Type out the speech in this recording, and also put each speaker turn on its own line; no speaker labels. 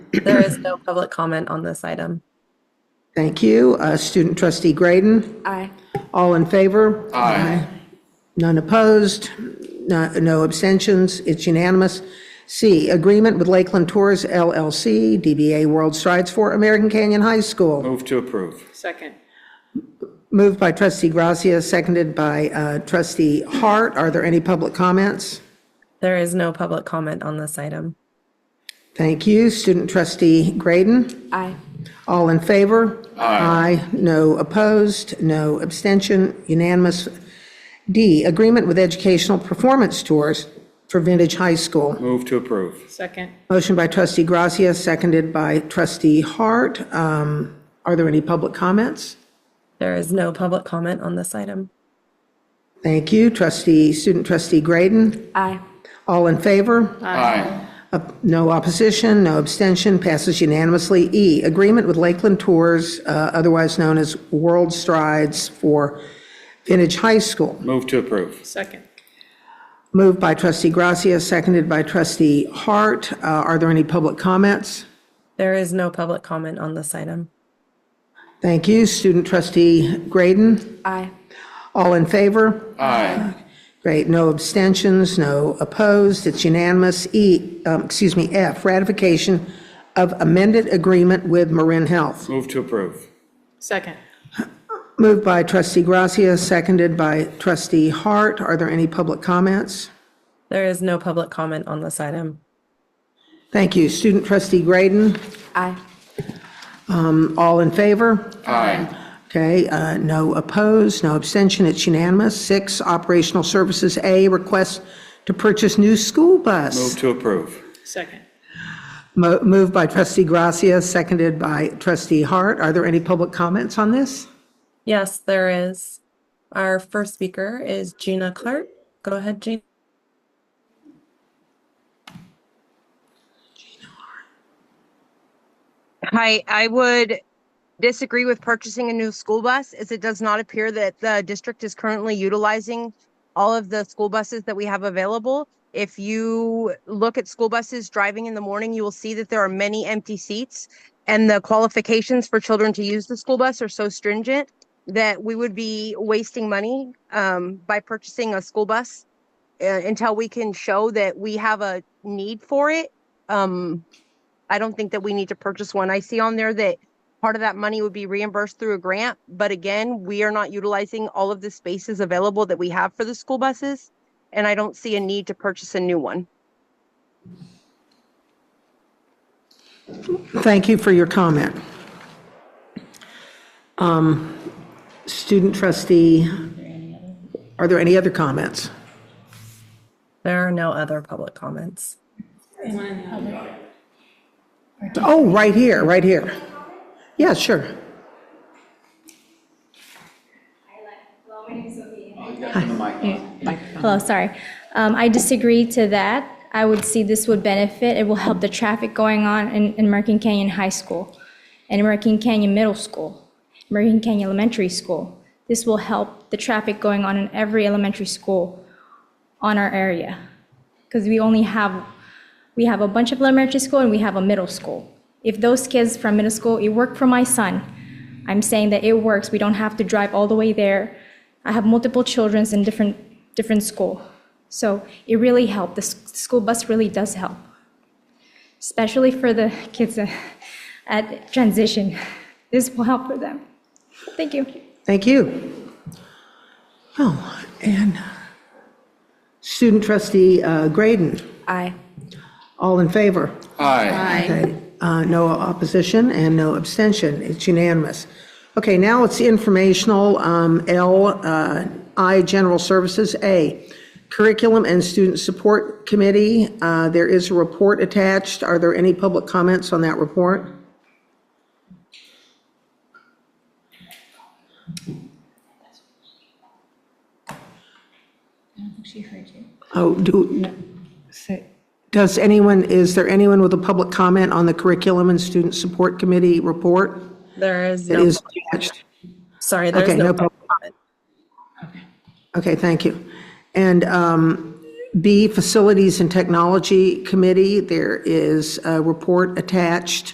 There is no public comment on this item.
Thank you. Uh, Student trustee Grayden,
Aye.
all in favor? Aye. None opposed, no no abstentions, it's unanimous. C, agreement with Lakeland Tours LLC, DBA World Strides for American Canyon High School.
Move to approve.
Second.
Moved by trustee Gracia, seconded by uh, trustee Hart. Are there any public comments?
There is no public comment on this item.
Thank you. Student trustee Grayden,
Aye.
all in favor? Aye. No opposed, no abstention, unanimous. D, agreement with educational performance tours for Vintage High School.
Move to approve.
Second.
Motion by trustee Gracia, seconded by trustee Hart. Um, Are there any public comments?
There is no public comment on this item.
Thank you. Trustee, student trustee Grayden,
Aye.
all in favor?
Aye.
Op- No opposition, no abstention, passes unanimously. E, agreement with Lakeland Tours, uh, otherwise known as World Strides for Vintage High School.
Move to approve.
Second.
Moved by trustee Gracia, seconded by trustee Hart. Uh, Are there any public comments?
There is no public comment on this item.
Thank you. Student trustee Grayden,
Aye.
all in favor?
Aye.
Great, no abstentions, no opposed, it's unanimous. E, um, excuse me, F, ratification of amended agreement with Marin Health.
Move to approve.
Second.
Moved by trustee Gracia, seconded by trustee Hart. Are there any public comments?
There is no public comment on this item.
Thank you. Student trustee Grayden,
Aye.
all in favor?
Aye.
Okay, uh, no opposed, no abstention, it's unanimous. Six, operational services, A, request to purchase new school
Move
bus.
to approve.
Second.
Mo- Moved by trustee Gracia, seconded by trustee Hart. Are there any public comments on this?
Yes, there is. Our first speaker is Gina Clark. Go ahead, Gina.
Hi, I would disagree with purchasing a new school bus as it does not appear that the district is currently utilizing all of the school buses that we have available. If you look at school buses driving in the morning, you will see that there are many empty seats. And the qualifications for children to use the school bus are so stringent that we would be wasting money um, by purchasing a school bus uh, until we can show that we have a need for it. Um, I don't think that we need to purchase one. I see on there that part of that money would be reimbursed through a grant, but again, we are not utilizing all of the spaces available that we have for the school buses. And I don't see a need to purchase a new one.
Thank you for your comment. Um, Student trustee, are there any other comments?
There are no other public comments.
Oh, right here, right here. Yeah, sure.
Hello, sorry. Um, I disagree to that. I would see this would benefit, it will help the traffic going on in, in American Canyon High School, and American Canyon Middle School, American Canyon Elementary School. This will help the traffic going on in every elementary school on our area. Because we only have, we have a bunch of elementary school and we have a middle school. If those kids from middle school, it worked for my son. I'm saying that it works. We don't have to drive all the way there. I have multiple children in different, different school. So it really helped. The s- school bus really does help, especially for the kids uh, at transition. This will help for them. Thank you.
Thank you. Oh, and student trustee uh, Grayden,
Aye.
all in favor?
Aye.
Okay, uh, No opposition and no abstention. It's unanimous. Okay, now it's informational. um, L, uh, I, General Services, A, Curriculum and Student Support Committee. Uh, There is a report attached. Are there any public comments on that report? Oh, do, does anyone, is there anyone with a public comment on the Curriculum and Student Support Committee report
There is
that
no,
is attached?
sorry, there's
okay,
no
no
public comment.
Okay, thank you. And um, B, Facilities and Technology Committee, there is a report attached.